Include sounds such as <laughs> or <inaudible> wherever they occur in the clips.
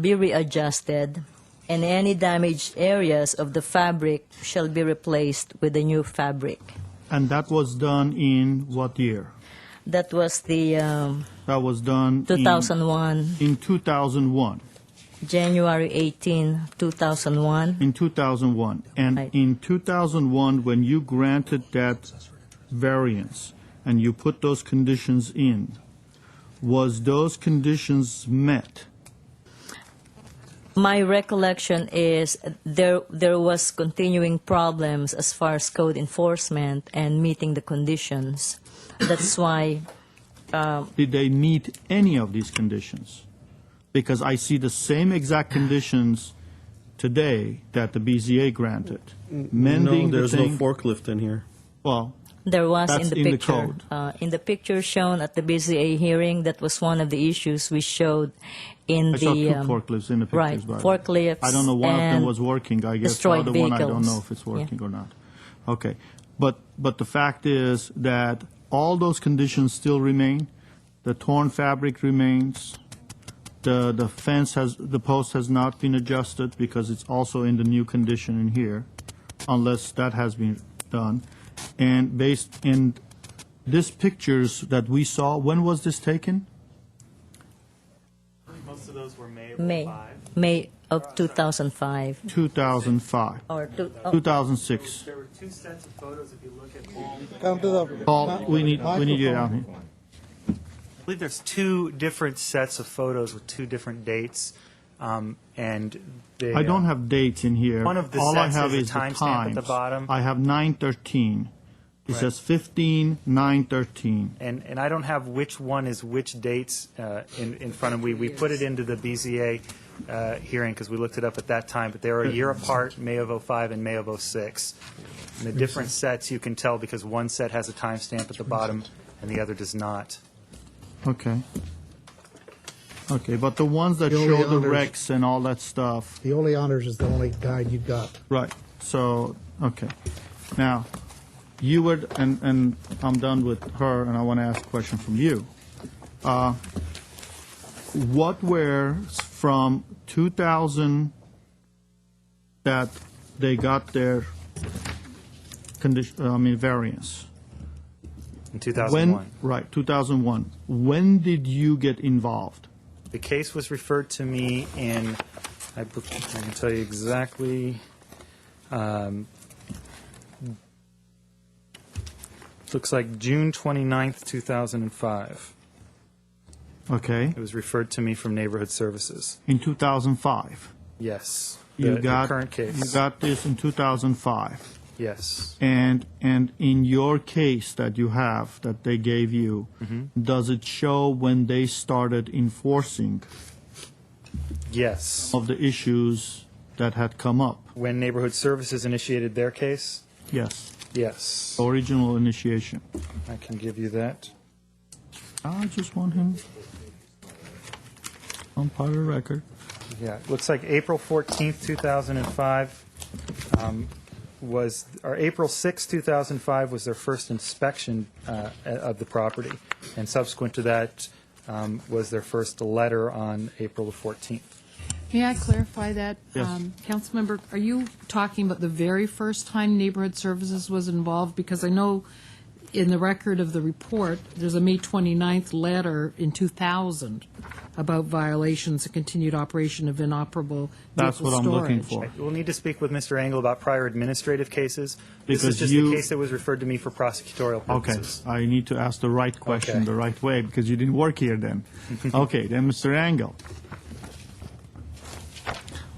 be readjusted, and any damaged areas of the fabric shall be replaced with a new fabric. And that was done in what year? That was the um, That was done in- 2001, In 2001. January 18, 2001. In 2001. And Right. in 2001, when you granted that variance and you put those conditions in, was those conditions met? My recollection is there there was continuing problems as far as code enforcement and meeting the conditions. That's why Did they meet any of these conditions? Because I see the same exact conditions today that the BZA granted. Mending the no, there's no thing, forklift in here. well, There was That's in the in the picture. code. Uh, in the picture shown at the BZA hearing, that was one of the issues we showed in the I saw two um, forklifts in the pictures. right, by the way. forklifts I don't know, one of them and was working, I guess. The destroyed other one, I don't vehicles. know if it's Yeah. working or not. Okay. But, but the fact is that all those conditions still remain. The torn fabric remains. The, the fence has, the post has not been adjusted because it's also in the new condition in here, unless that has been done. And based, in this pictures that we saw, when was this taken? Most of those were May or May five. May of 2005 2005, or two, oh, 2006. There were two sets of photos, if you look at all, I Come to the. Paul, we need, we need you down here. believe there's two different sets of photos with two different dates, um, and they. I don't uh, have dates in here. One of the All I sets have is a is the timestamp at the times. bottom. I have nine thirteen. It says fifteen, nine thirteen. And, and I don't have which one is which dates uh, in, in front of me. We put it into the BZA uh, hearing because we looked it up at that time, but they are a year apart, May of '05 and May of '06. And the different sets you can tell because one set has a timestamp at the bottom and the other does not. Okay. Okay, but the ones that The only show the others- wrecks and all that stuff, The only honors is the only guide you've got. right, so, okay. Now, you were, and, and I'm done with her, and I want to ask a question from you. Uh, What were s- from two thousand that they got their condition, uh, I mean, variance? When In 2001. Right, 2001. When did you get involved? The case was referred to me in, I bel- I can tell you exactly, um, looks like June 29th, 2005. Okay, It was referred to me from Neighborhood Services. in 2005. Yes. You The- got The current You case. got this in 2005. Yes. And and in your case that you have that they gave you, does it show when they started enforcing Yes. of the issues that had come up? When Neighborhood Services initiated their case? Yes, Yes. original initiation. I can give you that. I just want him on part of the record. Yeah, it looks like April 14th, 2005 um, was, or April 6th, 2005 was their first inspection uh, a- of the property, and subsequent to that um, was their first letter on April the 14th. May I clarify that? Yes. Um, Councilmember, are you talking about the very first time Neighborhood Services was involved? Because I know in the record of the report, there's a May 29th letter in 2000 about violations and continued operation of inoperable That's vehicle what I'm looking storage. for. We'll need to speak with Mr. Engel about prior administrative cases. This Because is just you- the case that was referred to me for prosecutorial Okay, purposes. I need to ask the right question Okay. the right way because you didn't work here <laughs> then. okay, then Mr. Engel.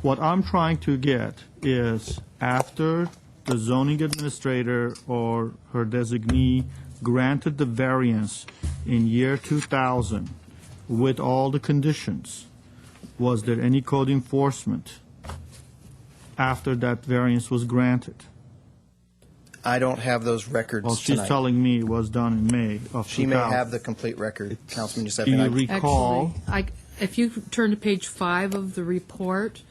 What I'm trying to get is after the zoning administrator or her designee granted the variance in year 2000 with all the conditions, was there any code enforcement after that variance was granted? I don't have those records Well, she's tonight. telling me it was done in May of 2000. she may have the complete record, Councilman Do Giuseppe. you I- recall? Actually, I, if you turn to page five of the report,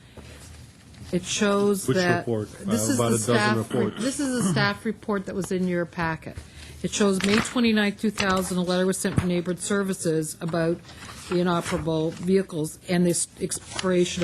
it shows Which that. report? This Uh, is about the a dozen staff- reports. This is the staff report that was in your packet. It shows May 29, 2000, a letter was sent from Neighborhood Services about the inoperable vehicles and the expiration